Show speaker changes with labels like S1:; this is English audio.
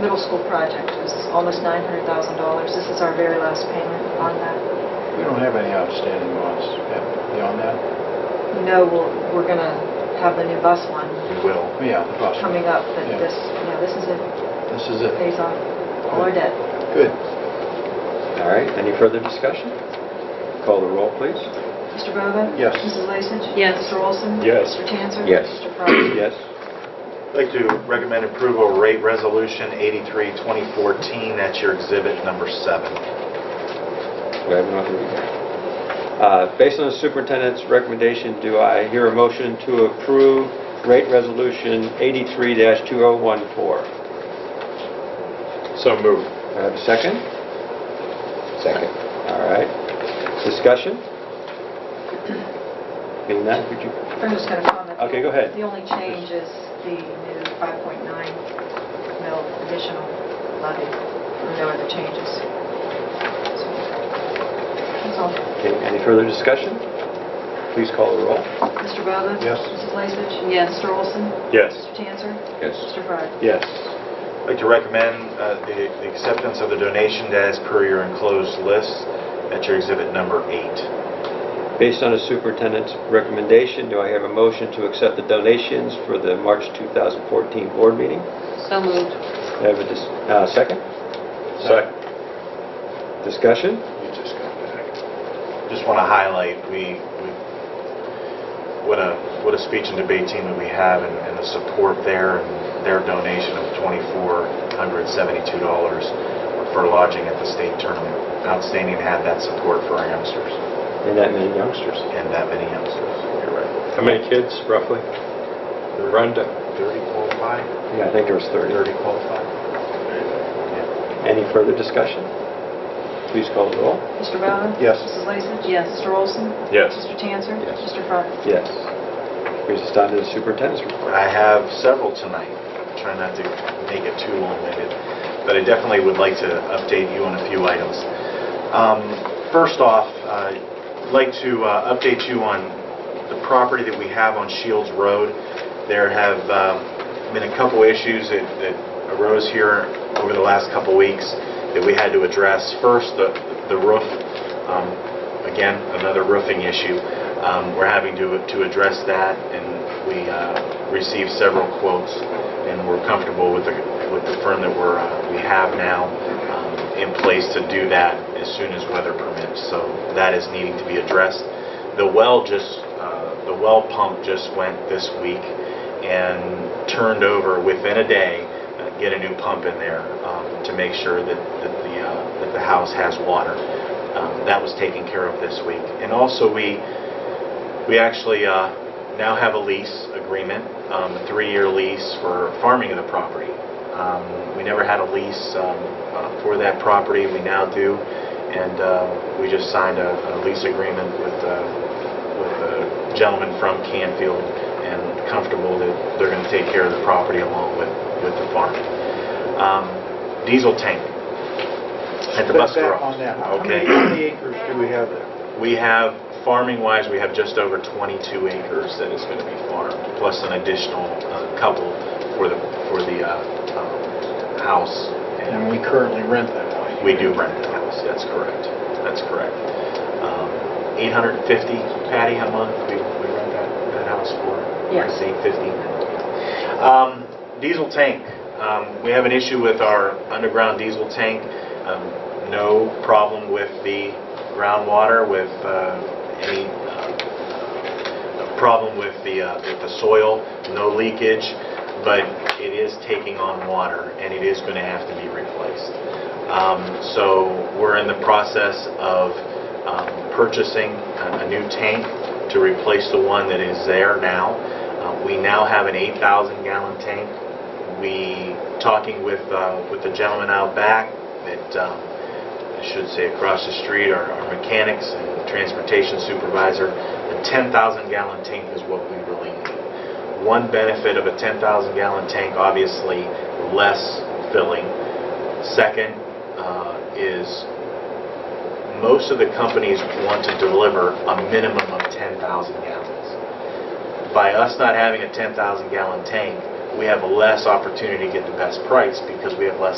S1: middle school project is almost $900,000. This is our very last payment on that.
S2: We don't have any outstanding ones beyond that.
S1: No, we'll- we're going to have the new bus one
S2: We will. Oh, Yeah, the bus.
S1: coming up, but
S2: Yeah.
S1: this, yeah, this is it.
S2: This is
S1: It
S2: it.
S1: pays off all our debt.
S2: Good.
S3: All right, any further discussion? Call the roll, please.
S1: Mr. Bova?
S2: Yes.
S1: Mrs. Lasich?
S4: Yes.
S1: Mr. Olson?
S3: Yes.
S1: Mr. Tanzer?
S3: Yes.
S1: Mr. Fry?
S3: Yes.
S5: I'd like to recommend approval of rate resolution 83, 2014. That's your exhibit number seven.
S3: Do I have enough to read that? Uh, Based on the superintendent's recommendation, do I hear a motion to approve rate resolution 83-2014?
S6: So moved.
S3: Do I have a second? Second. All right. Discussion? Being that, would you,
S1: I'm just going to comment.
S3: Okay, go ahead.
S1: The only change is the new 5.9 mil additional levy. No other changes. So, That's all.
S3: okay, any further discussion? Please call the roll.
S1: Mr. Bova?
S2: Yes.
S1: Mrs. Lasich?
S4: Yes.
S1: Mr. Olson?
S6: Yes.
S1: Mr. Tanzer?
S3: Yes.
S1: Mr. Fry?
S2: Yes.
S5: I'd like to recommend uh, the the acceptance of the donation as per your enclosed list. That's your exhibit number eight.
S3: Based on the superintendent's recommendation, do I have a motion to accept the donations for the March 2014 board meeting?
S4: So moved.
S3: Do I have a dis- uh, second?
S6: Second.
S3: Discussion?
S2: You just got back.
S5: Just want to highlight, we, we- what a, what a speech and debate team that we have and and the support there, and their donation of $2,472 for lodging at the state tournament. Outstanding to have that support for our youngsters
S3: And that many youngsters.
S5: and that many youngsters. You're right.
S6: How many kids roughly? Rhonda?
S5: 30 qualified?
S3: Yeah, I think there was 30.
S5: 30 qualified. Yeah.
S3: Any further discussion? Please call the roll.
S1: Mr. Bova?
S2: Yes.
S1: Mrs. Lasich?
S4: Yes.
S1: Mr. Olson?
S6: Yes.
S1: Mr. Tanzer?
S3: Yes.
S1: Mr. Fry?
S3: Yes. Here's us down to the superintendent's report.
S5: I have several tonight. Try not to make it too long-winded, but I definitely would like to update you on a few items. Um, First off, uh, I'd like to uh, update you on the property that we have on Shields Road. There have um, been a couple issues that that arose here over the last couple weeks that we had to address. First, the the roof. Um, Again, another roofing issue. Um, We're having to to address that, and we uh, received several quotes, and we're comfortable with the with the firm that we're, uh, we have now um, in place to do that as soon as weather permits. So that is needing to be addressed. The well just, uh, the well pump just went this week and turned over within a day, uh, get a new pump in there um, to make sure that that the uh, that the house has water. Um, That was taken care of this week. And also, we we actually uh, now have a lease agreement, um, a three-year lease for farming of the property. Um, We never had a lease um, uh, for that property, we now do, and uh, we just signed a a lease agreement with uh, with a gentleman from Canfield, and comfortable that they're going to take care of the property along with with the farm. Um, Diesel tank at the
S2: Back-
S5: bus
S2: back
S5: garage.
S2: on that. How
S5: Okay.
S2: many- How many acres do we have there?
S5: We have, farming-wise, we have just over 22 acres that is going to be farmed, plus an additional uh, couple for the, for the uh, um, house.
S2: And we currently rent that one.
S5: We do rent the house, that's correct. That's correct. Um, 850, Patty, a month, we we rent that, that house for,
S1: Yeah.
S5: I say 50. Um, Diesel tank, Um, we have an issue with our underground diesel tank. Um, No problem with the groundwater, with uh, any uh, problem with the, uh, with the soil, no leakage, but it is taking on water, and it is going to have to be replaced. Um, So we're in the process of um, purchasing a a new tank to replace the one that is there now. Uh, We now have an 8,000 gallon tank. We, talking with, uh, with the gentleman out back that, um, I should say across the street, our our mechanics and transportation supervisor, a 10,000 gallon tank is what we really need. One benefit of a 10,000 gallon tank, obviously, less filling. Second uh, is, most of the companies want to deliver a minimum of 10,000 gallons. By us not having a 10,000 gallon tank, we have less opportunity to get the best price because we have less